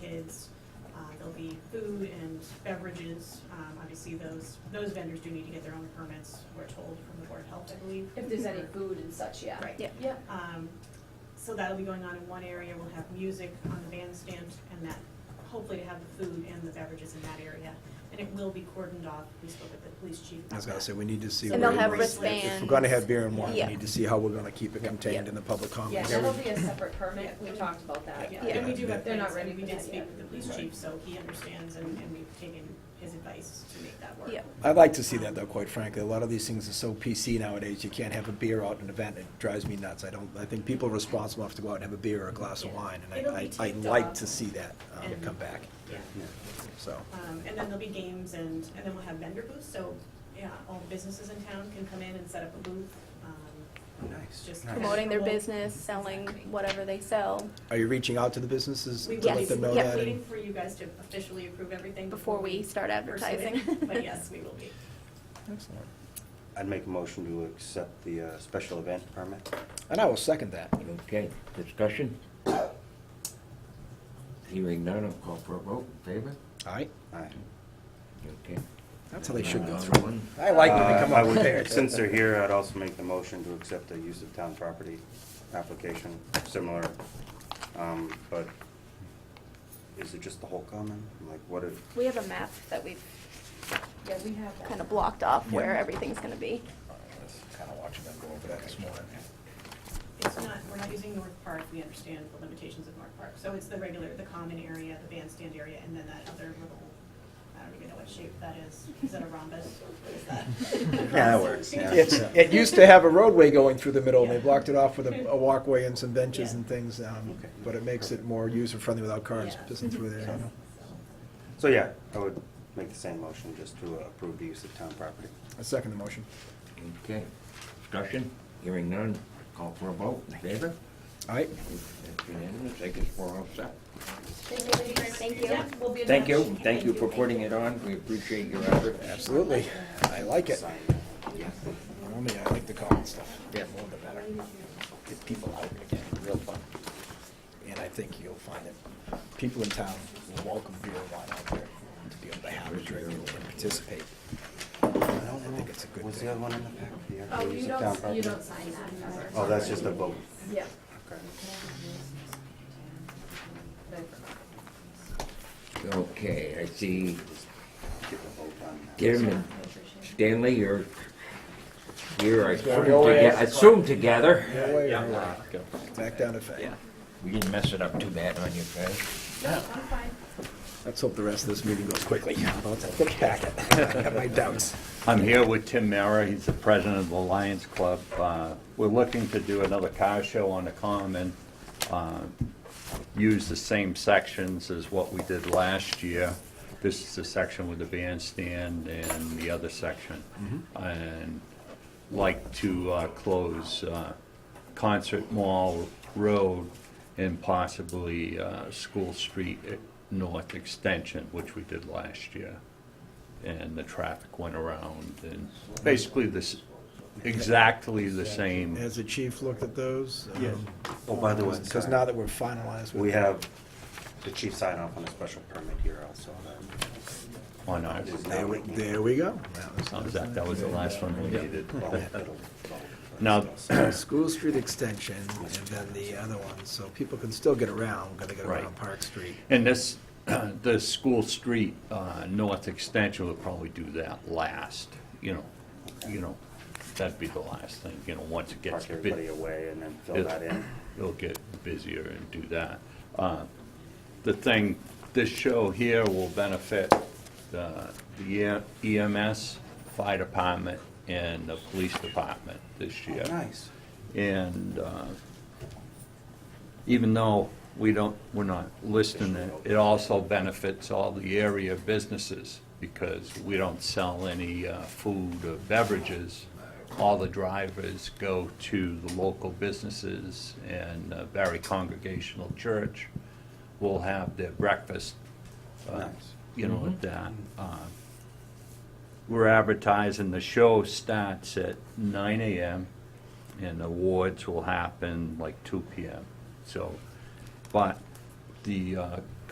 kids. Uh, There'll be food and beverages. Um, Obviously, those, those vendors do need to get their own permits, we're told from the Board of Health, I believe. If there's any food and such, yeah. Right. Yeah. Yeah. Um, So that'll be going on in one area, we'll have music on the bandstand and that, hopefully to have the food and the beverages in that area. And it will be cordoned off, we spoke with the police chief about I was gonna that. say, we need to see. And where they'll have we're- If wristbands. we're gonna have beer and wine, we Yeah. need to see how we're gonna keep it contained in the public Yeah, commons. that'll be a separate permit, we Yeah. talked about that, Yeah, yeah. and we do Yeah. have They're not plans, and we ready for did that speak yet. with the police chief, so he understands, and, and we've taken his advice to make that work. Yeah. I'd like to see that though, quite frankly. A lot of these things are so PC nowadays, you can't have a beer out at an event, it drives me nuts. I don't, I think people are responsible enough to go out and have a beer or a glass of Yeah. wine, and It'll be I- I, I'd taped like off. to see that um, And- come back, Yeah. so. Um, and then there'll be games and, and then we'll have vendor booths, so, yeah, all businesses in town can come in and set up a booth. Um, Nice. Just nice. Promoting their business, selling whatever they sell. Are you reaching out to the businesses We to will let them know be that? waiting and- for you guys to officially approve everything. Before we start pursue it, advertising. But yes, we will be. Excellent. I'd make a motion to accept the uh, special event permit. And I will second that. Okay, discussion? Hearing none, I'll call for a vote, favor? All right, Aye. Okay. that's how they should go Another through. one? I like when Uh, they come I up would- prepared. Since they're here, I'd also make the motion to accept the use of town property application, similar. um, But is it just the whole common? Like, what if, We have a map that we've Yeah, we have that. kind of blocked off where Yeah. everything's gonna be. Uh, Kind of watching them go over that this morning. It's not, we're not using North Park, we understand the limitations of North Park. So it's the regular, the common area, the bandstand area, and then that other little, I don't even know what shape that is. Is that a rhombus? What is that? Yeah, that works, yeah. It's, it used to have a roadway going through the middle, and they blocked it off with a, a walkway and some benches Yeah. and things, um, Okay. but it makes it more user-friendly without cars Yeah. Mm-hmm. pissing through there, you know? so yeah, I would make the same motion just to uh, approve the use of town property. I second the motion. Okay, discussion? Hearing none, call for a vote, favor? All right, That's unanimous, I guess we're all set. Thank you. Thank you. Yeah, we'll be in Thank you, touch. thank you for putting it on, we appreciate your effort. absolutely. I like it. Sign. Normally, I like the common stuff. Yeah. More the better. Get people out again, real fun. And I think you'll find that people in town will welcome beer and wine out there to be able to have a drink and participate. I don't think know, it's a good was thing. the other one in the back? The actual Oh, use you of town don't, you property? don't sign that remember? Oh, that's just a vote. Yeah. Okay. No problem. Okay, I see Get the vote on that. Kim and Stanley, you're here, I assume, Go toge- ahead. assume together. No way, no way. Back down to fact. We didn't mess it up too bad on you guys. No, I'm fine. Let's hope the rest of this meeting goes quickly. I'll take it back. I have my doubts. I'm here with Tim Mara, he's the president of the Lions Club. Uh, We're looking to do another car show on the common, uh, use the same sections as what we did last year. This is the section with the bandstand and the other section. And like to uh, close uh, Concert Mall Road and possibly uh, School Street North Extension, which we did last year and the traffic went around, and basically this, exactly the same. Has the chief looked at those? Yes. Oh, by the way, Because sorry. now that we're finalized with. We have the chief sign off on a special permit here also. on our- There we, there we go. Oh, is That that was the last one we needed. Now- Now, School Street Extension and then the other one, so people can still get around, because they get Right. around Park Street. And this, the School Street uh, North Extension would probably do that last, you know, you know, that'd be the last thing, you know, once it park gets. big. everybody away and then fill that in. it'll get busier and do that. Uh, The thing, this show here will benefit the the E- EMS, fire department, and the police department this year. Oh, Nice. And uh, even though we don't, we're not listing it, it also benefits all the area businesses because we don't sell any uh, food or beverages. All the drivers go to the local businesses and uh, Barry Congregational Church will have their breakfast, uh, Nice. you know, at that. uh, we're advertising, the show starts at nine AM, and awards will happen like two PM. So, but the uh,